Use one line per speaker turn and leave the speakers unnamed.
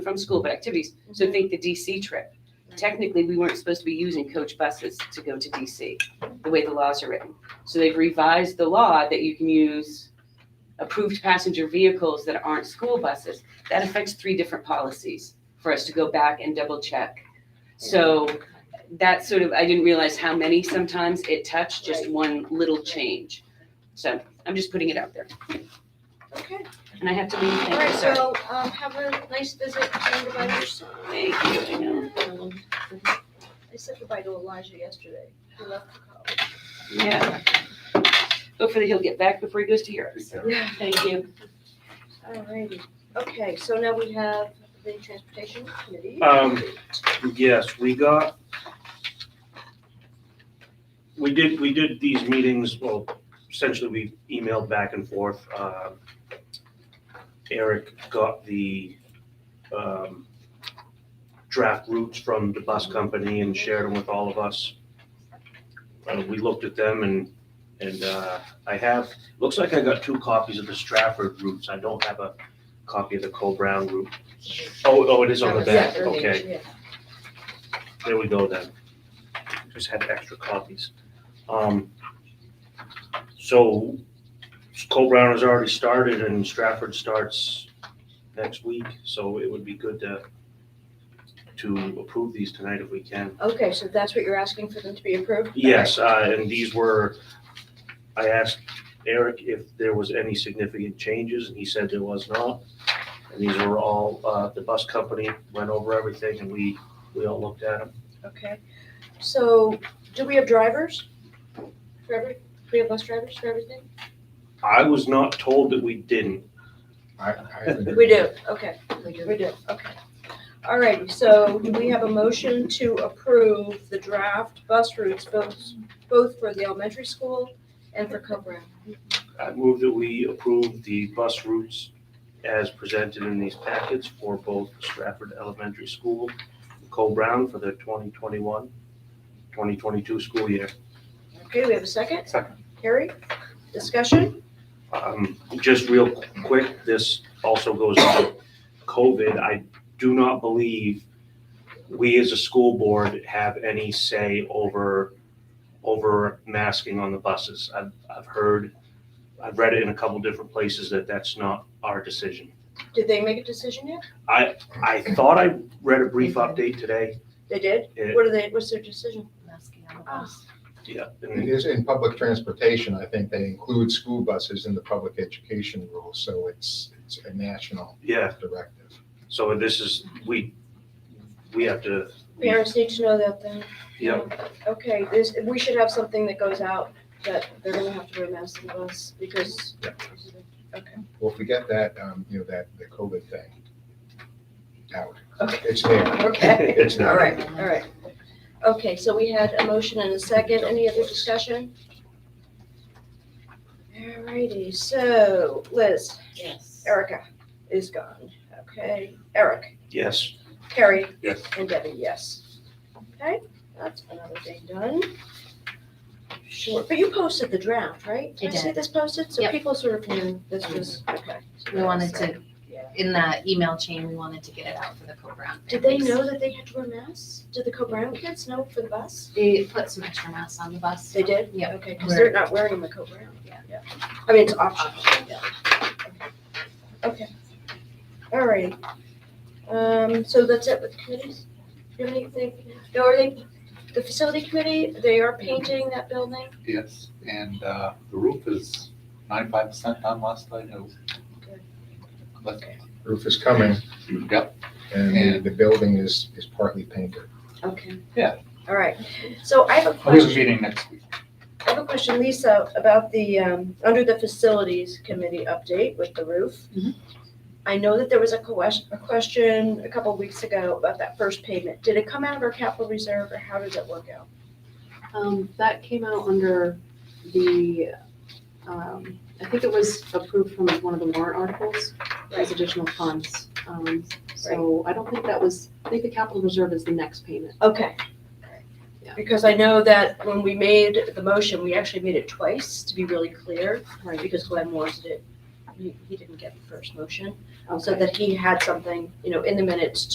from school, but activities.
Mm-hmm.
So think the DC trip. Technically, we weren't supposed to be using coach buses to go to DC, the way the laws are written. So they've revised the law that you can use approved passenger vehicles that aren't school buses. That affects three different policies for us to go back and double check. So that sort of, I didn't realize how many sometimes it touched, just
Right.
one little change. So I'm just putting it out there.
Okay,
And I have to leave,
all
thank
right,
you, sir.
so, um, have a nice visit and goodbye to your son.
Thank you, I know.
Um, I said goodbye to Elijah yesterday, he left for college.
Yeah. Hopefully he'll get back before he goes to Europe.
Yeah.
Thank you.
Alrighty, okay, so now we have the transportation committee.
Um, Yes, we got, we did, we did these meetings, well, essentially we emailed back and forth. Um, Eric got the um, draft routes from the bus company and shared them with all of us. Uh, We looked at them and, and uh, I have, looks like I got two copies of the Stratford routes. I don't have a copy of the Co-Brown route. Oh, oh, it is on the back, okay. There we go then. Just had extra copies. Um, So Cole Brown has already started and Stratford starts next week, so it would be good to to approve these tonight if we can.
Okay, so that's what you're asking for them to be approved?
Yes, uh, and these were, I asked Eric if there was any significant changes and he said there was not. And these were all, uh, the bus company went over everything and we, we all looked at them.
Okay, so, do we have drivers? For every, do we have bus drivers for everything?
I was not told that we didn't.
I, I think.
We do, okay. We do. We do, okay. All right, so do we have a motion to approve the draft bus routes, both, both for the elementary school and for Co-Brown?
I move that we approve the bus routes as presented in these packets for both Stratford Elementary School, and Cole Brown for the 2021, 2022 school year.
Okay, we have a second?
Second.
Harry, discussion?
Um, Just real quick, this also goes on COVID. I do not believe we as a school board have any say over, over masking on the buses. I've, I've heard, I've read it in a couple different places that that's not our decision.
Did they make a decision yet?
I thought I read a brief update today.
They did?
It-
What are they, what's their decision?
masking on the
bus.
Yeah,
It
and
is in public transportation, I think they include school buses in the public education rule, so it's, it's a national
yeah,
directive.
so this is, we, we have to.
Parents need to know that then.
Yeah,
Okay, this, we should have something that goes out that they're gonna have to wear masks in the bus because.
Well, if we get that, um, you know, that, the COVID thing out,
Okay.
it's there.
Okay.
it's
All
not,
right, all right. Okay, so we had a motion and a second. Any other discussion? All righty, so Liz,
Yes.
Erica is gone. Okay, Eric,
yes.
Carrie.
Yes.
And Debbie, yes. Okay, that's another thing done. Sure, but you posted the draft, right?
I
Did I see
did.
this posted? So
Yep. Mm-hmm.
people sort of knew this was, okay.
We wanted to,
Yeah.
in the email chain, we wanted to get it out for the co-brown.
Did they
families.
know that they had to wear masks? Did the Co-Brown kids know for the bus?
They put some extra masks on the bus.
They did?
Yeah.
Okay, because they're not wearing them a coat brown.
Yeah.
I mean, it's optional. Okay. All right. Um, so that's it with committees? Do you have anything? No, are they, the facility committee, they are painting that building?
Yes, and uh, the roof is ninety-five percent done last night. It was- But,
Roof is coming
yep,
and the- the building is, is partly painted.
Okay.
Yeah.
All right. So I have a
there's a
question.
meeting next week.
I have a question, Lisa, about the, um, under the facilities committee update with the roof.
Mhm.
I know that there was a question, a question a couple weeks ago about that first payment. Did it come out of our capital reserve or how did that work out?
Um, that came out under the, um, I think it was approved from one of the warrant articles as additional funds. Um, so I don't think that was, I think the capital reserve is the next payment.
Okay.
Yeah.
Because I know that when we made the motion, we actually made it twice to be really clear,
Right.
because Glenn wanted it he, he didn't get the first motion, so
Okay.
that he had something, you know, in the minutes